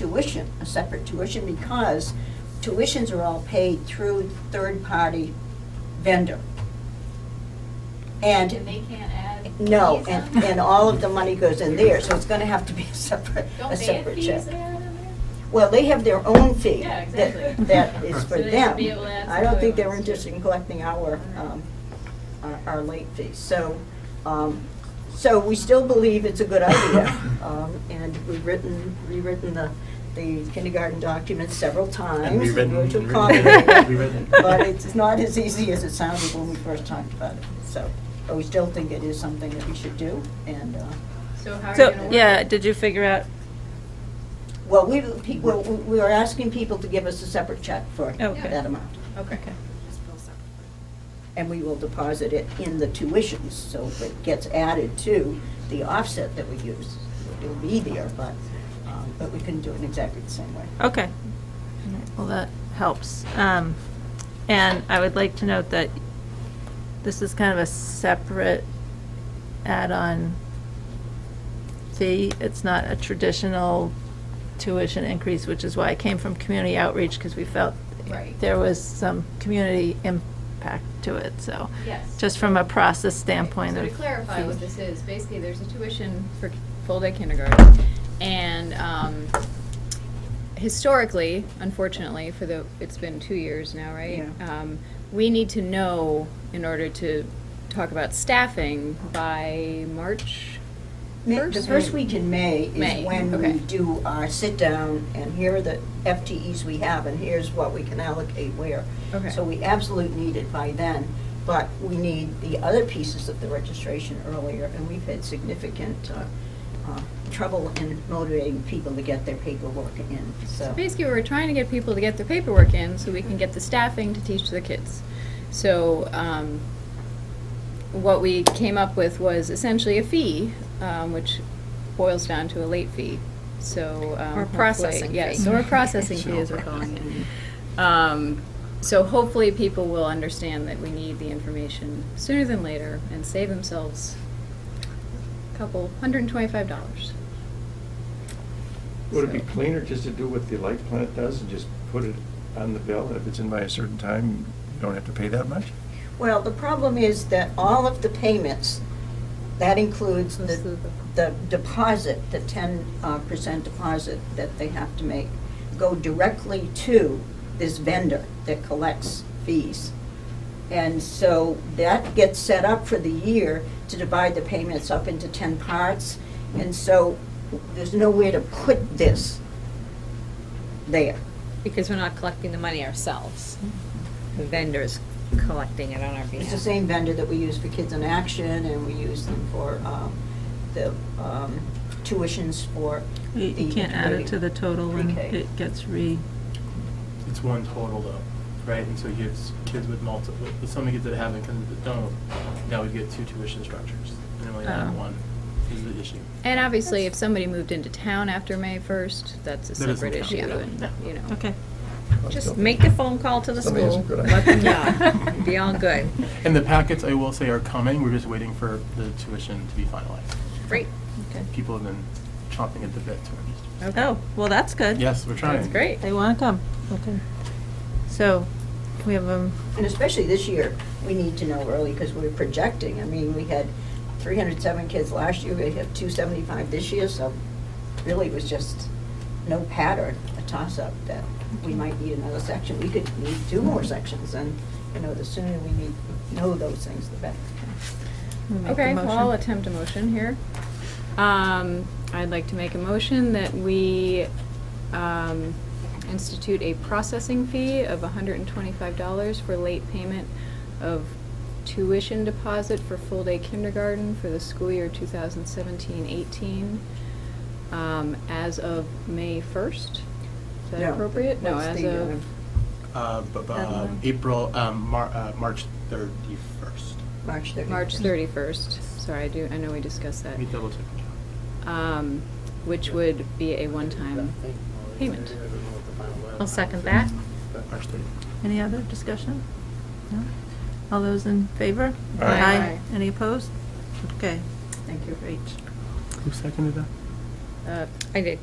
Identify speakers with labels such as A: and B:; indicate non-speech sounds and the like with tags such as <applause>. A: tuition, a separate tuition, because tuitions are all paid through third-party vendor. And.
B: And they can't add.
A: No,
B: fees on
A: and,
B: it?
A: and all of the money goes in there, so it's gonna have to be
B: <laughs>
A: a separate,
B: Don't
A: a
B: they have
A: separate
B: fees
A: check.
B: they add in there?
A: Well, they have their own fee.
B: Yeah,
A: that-
B: exactly.
A: That is for
B: So they should
A: them.
B: be able to add
A: I don't
B: some
A: think
B: to it.
A: they're interested in collecting our, um, our, our late fees. So, um, so we still believe it's a good
B: <coughs>
A: idea. Um, and we've written, rewritten the, the kindergarten documents several times.
C: And rewritten,
A: which will
C: rewritten,
A: complicate it,
C: rewritten.
A: But it's not as easy as it sounded when we first talked about it. So, but we still think it is something that we should do and, uh,
B: So how are you gonna
D: So,
B: work?
D: yeah,
B: it?
D: did you figure out,
A: Well, we, pe- we we were asking people to give us a separate check for
D: Okay.
A: that amount.
B: Okay.
D: okay.
A: And we will deposit it in the tuitions, so if it gets added to the offset that we use. It'll be there, but, um, but we couldn't do it in exactly the same way.
D: Okay. All right, Well, that helps. Um, And I would like to note that this is kind of a separate add-on fee. It's not a traditional tuition increase, which is why I came from community outreach, because we felt
B: Right.
D: there was some community impact to it, so.
B: Yes.
D: Just from a process standpoint
B: So
D: of.
B: to clarify what
D: fees.
B: this is, basically, there's a tuition for full-day kindergarten, and um, historically, unfortunately, for the, it's been two years now, right?
A: Yeah.
B: Um, We need to know, in order to talk about staffing, by March
A: Ma- The
B: First
A: first
B: and-
A: week in May is
B: May,
A: when we
B: okay.
A: do our sit-down, and here are the FTEs we have, and here's what we can allocate where.
B: Okay.
A: So we absolutely need it by then, but we need the other pieces of the registration earlier, and we've had significant uh, uh, trouble in motivating people to get their paperwork in,
B: So
A: so.
B: basically, we're trying to get people to get their paperwork in so we can get the staffing to teach the kids. So um, what we came up with was essentially a fee, um, which boils down to a late fee. So
E: Or
B: um, hopefully-
E: processing
B: Yes,
E: fee.
B: or a processing fee, as we're calling it. Um, So hopefully, people will understand that we need the information sooner than later and save themselves a couple, $125.
C: Would it be
B: So-
C: cleaner just to do what the light plant does and just put it on the bill? and If it's in by a certain time, you don't have to pay that much?
A: Well, the problem is that all of the payments, that includes
B: This
A: the
B: is the-
A: the deposit, the ten uh, percent deposit that they have to make, go directly to this vendor that collects fees. And so that gets set up for the year to divide the payments up into ten parts. And so there's nowhere to put this there.
E: Because we're not collecting the money ourselves. The vendor's collecting it on our behalf.
A: It's the same vendor that we use for Kids in Action, and we use them for um, the um, tuitions for the.
D: You you can't add it to the total and
A: pre-K.
D: it gets re,
F: it's one total though, right? And so you have s- kids with multiple, with some kids that haven't, because don't, now we get two tuition structures. And only
D: Oh.
F: having one is the issue.
B: And obviously, if somebody moved into town after May 1st, that's a
F: That doesn't
B: separate
F: count,
B: issue,
F: yeah.
B: and,
F: No.
B: you know.
D: okay.
E: Just make the phone call to the
C: Somebody has a
E: school,
C: good idea.
E: let them know, be all good.
F: And the packets, I will say, are coming. We're just waiting for the tuition to be finalized.
E: Great.
D: Okay.
F: People have been chomping at the bit to register.
D: Oh, well, that's good.
F: Yes, we're trying.
E: That's great.
D: They want to come, okay. So, can we have um, a,
A: And especially this year, we need to know early, because we're projecting. I mean, we had 307 kids last year, we have 275 this year, so really it was just no pattern, a toss-up, that we might need another section. We could need two more sections, and, you know, the sooner we need, know those things, the better.
D: we make a
B: Okay, well, I'll
D: motion?
B: attempt a motion here. Um, I'd like to make a motion that we um, institute a processing fee of $125 for late payment of tuition deposit for full-day kindergarten for the school year 2017-18 um, as of May 1st. Is that
A: No,
B: appropriate? No,
A: what's
B: as
A: the,
B: of,
A: um,
F: Uh, but,
D: Deadline.
F: um, April, um, Mar- uh, March thirty-first.
A: March 31st.
B: March 31st. Sorry, I do, I know we discussed that.
F: Let me double check.
B: um, which would be a one-time payment.
E: I'll second that.
F: March thirty.
D: Any other discussion? No? All those in favor?
C: Aye.
B: Aye.
D: Any opposed? Okay,
A: Thank you.
D: great.
F: Who seconded that?
B: Uh,
E: I did.